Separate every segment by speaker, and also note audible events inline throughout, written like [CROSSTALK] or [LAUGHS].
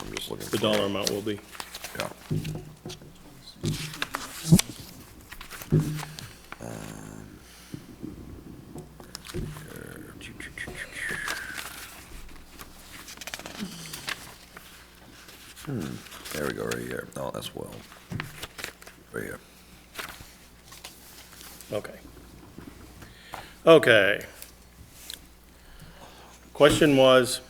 Speaker 1: I'm just looking.
Speaker 2: the
Speaker 1: for-
Speaker 2: dollar amount will be.
Speaker 1: Yeah. Um, Hmm, there we go, right here. No, that's well. Right here.
Speaker 2: Okay. Okay. Question was,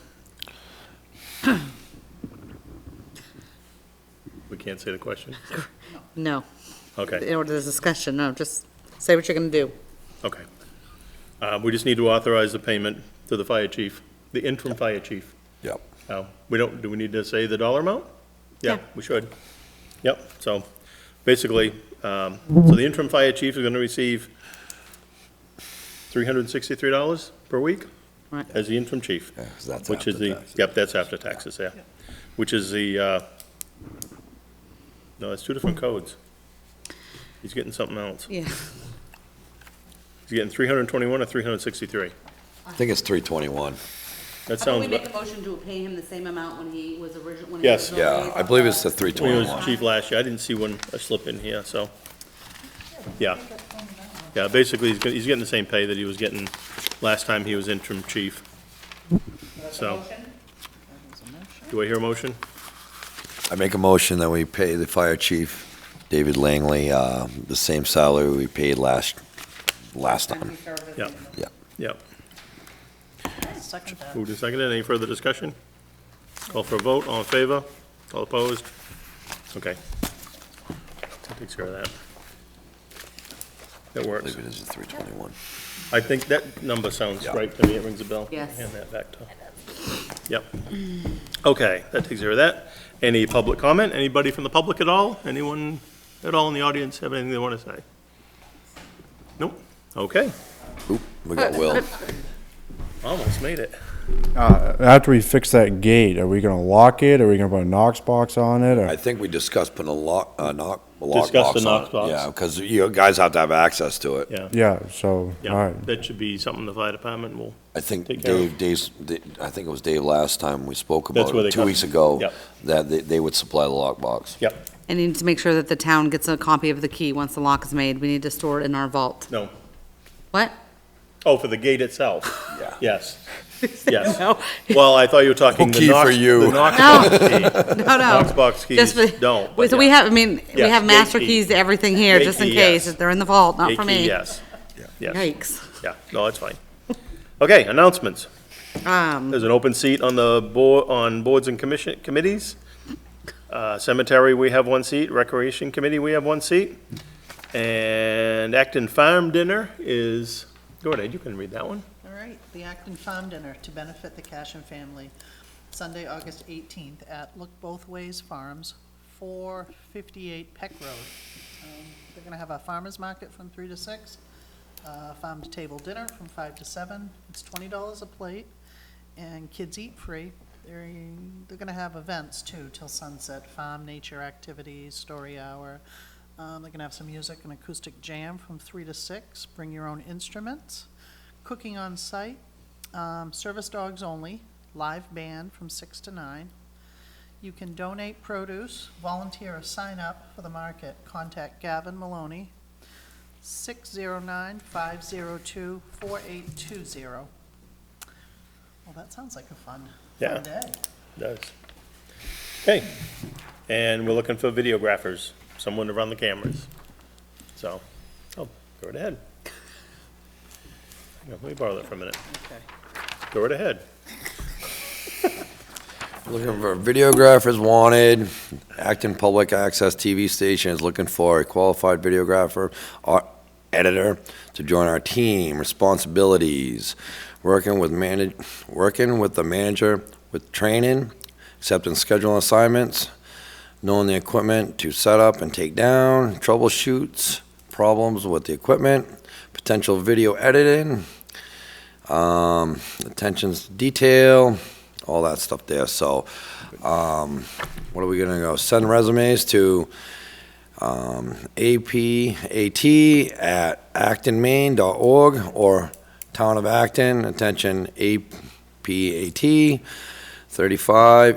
Speaker 2: we can't say the question?
Speaker 3: No,
Speaker 2: Okay,
Speaker 3: in order to discussion, no, just say what you're gonna do.
Speaker 2: okay. Uh, We just need to authorize the payment to the fire chief, the interim fire chief.
Speaker 1: Yep.
Speaker 2: Oh, we don't, do we need to say the dollar amount? Yeah,
Speaker 3: Yeah.
Speaker 2: we should. Yep, so basically, um, so the interim fire chief is gonna receive three hundred and sixty-three dollars per week
Speaker 3: Right.
Speaker 2: as the interim chief.
Speaker 1: Yeah, 'cause that's
Speaker 2: Which is
Speaker 1: after
Speaker 2: the,
Speaker 1: taxes.
Speaker 2: yep, that's after taxes, yeah. Which is the, uh, no, it's two different codes. He's getting something else.
Speaker 3: Yeah.
Speaker 2: He's getting three hundred and twenty-one or three hundred and sixty-three.
Speaker 1: I think it's three twenty-one.
Speaker 2: That
Speaker 4: How about
Speaker 2: sounds,
Speaker 4: we make a
Speaker 2: about-
Speaker 4: motion to pay him the same amount when he was original, when he
Speaker 2: Yes.
Speaker 4: was.
Speaker 1: Yeah, I believe it's the three
Speaker 2: when he was
Speaker 1: twenty-one.
Speaker 2: chief last year, I didn't see one, a slip in here, so, yeah. Yeah, basically, he's, get- he's getting the same pay that he was getting last time he was interim chief. So, do I hear a motion?
Speaker 1: I make a motion that we pay the fire chief, David Langley, uh, the same salary we paid last, last time.
Speaker 2: Yeah,
Speaker 1: Yeah.
Speaker 2: yeah.
Speaker 5: Second that.
Speaker 2: Moved and seconded. Any further discussion? Call for a vote. All in favor? All opposed? Okay. That takes care of that. That
Speaker 1: I
Speaker 2: works.
Speaker 1: believe it is a three twenty-one.
Speaker 2: I think that number sounds
Speaker 1: Yeah.
Speaker 2: right to me. It rings a bell.
Speaker 4: Yes.
Speaker 2: Hand that back to. Yep. Okay, that takes care of that. Any public comment? Anybody from the public at all? Anyone at all in the audience have anything they want to say? Nope. Okay,
Speaker 1: Oop, we got Will.
Speaker 2: almost made it.
Speaker 6: Uh, After we fix that gate, are we gonna lock it? Are we gonna put a Knox box on it?
Speaker 1: I
Speaker 6: Or,
Speaker 1: think we discussed putting a lock, a knock, a lock
Speaker 2: Discussed
Speaker 1: box
Speaker 2: the
Speaker 1: on
Speaker 2: knock
Speaker 1: it.
Speaker 2: box.
Speaker 1: Yeah, because you guys have to have access to it.
Speaker 2: Yeah.
Speaker 6: yeah, so, all
Speaker 2: Yeah,
Speaker 6: right.
Speaker 2: that should be something the fire department will,
Speaker 1: I think
Speaker 2: Take care of
Speaker 1: Dave, Dave's, Da- I think it was Dave last time we spoke
Speaker 2: That's
Speaker 1: about
Speaker 2: where they
Speaker 1: it, two
Speaker 2: come-
Speaker 1: weeks ago,
Speaker 2: Yep.
Speaker 1: that they, they would supply the lock box.
Speaker 2: yep,
Speaker 3: And you need to make sure that the town gets a copy of the key once the lock is made. We need to store it in our vault.
Speaker 2: no.
Speaker 3: What?
Speaker 2: Oh, for the gate itself?
Speaker 1: [LAUGHS] Yeah.
Speaker 3: [LAUGHS]
Speaker 2: Yes, yes.
Speaker 3: No,
Speaker 2: Well, I thought you were talking
Speaker 1: Key
Speaker 2: the
Speaker 1: for
Speaker 2: Knox,
Speaker 1: you.
Speaker 2: the Knox box key.
Speaker 3: [LAUGHS] no, no.
Speaker 2: Knox box keys
Speaker 3: Just for-
Speaker 2: don't, but
Speaker 3: So we
Speaker 2: yeah.
Speaker 3: have, I mean, we
Speaker 2: Yes,
Speaker 3: have
Speaker 2: gate
Speaker 3: master
Speaker 2: key.
Speaker 3: keys to everything here,
Speaker 2: Gate
Speaker 3: just in
Speaker 2: key,
Speaker 3: case.
Speaker 2: yes.
Speaker 3: They're in the vault, not
Speaker 2: Gate
Speaker 3: for
Speaker 2: key,
Speaker 3: me.
Speaker 2: Yes, yes,
Speaker 3: Yikes.
Speaker 2: yeah, no, that's fine. Okay, announcements.
Speaker 3: Um,
Speaker 2: There's an open seat on the board, on boards and commission, committees. Uh, Cemetery, we have one seat. Recreation Committee, we have one seat. And Acton Farm Dinner is, go ahead, you can read that one.
Speaker 5: All right, the Acton Farm Dinner to benefit the Cashin family, Sunday, August 18th at Look Both Ways Farms, 458 Peck Road. Um, They're going to have a farmer's market from 3 to 6, uh, farm-to-table dinner from 5 to 7. It's $20 a plate, and kids eat free. They're, they're going to have events too, till sunset, farm nature activities, story hour. Um, They're going to have some music and acoustic jam from 3 to 6. Bring your own instruments cooking on site, um, service dogs only, live band from six to nine. You can donate produce, volunteer or sign up for the market. Contact Gavin Maloney, 609-502-4820. Well, that sounds like a fun,
Speaker 2: Yeah.
Speaker 5: fun day.
Speaker 2: Does. Okay, and we're looking for videographers, someone to run the cameras. So, oh, go right ahead. Hang on, Let me borrow that for a minute.
Speaker 5: Okay.
Speaker 2: Go right ahead.
Speaker 1: Looking for videographers wanted, Acton Public Access TV station is looking for a qualified videographer or editor to join our team. Responsibilities, working with manage, working with the manager with training, accepting scheduling assignments, knowing the equipment to set up and take down, troubleshoots, problems with the equipment, potential video editing, um, attentions to detail, all that stuff there. So, um, what are we gonna go? Send resumes to, um, APAT at actonmaine.org or Town of Acton, attention APAT thirty-five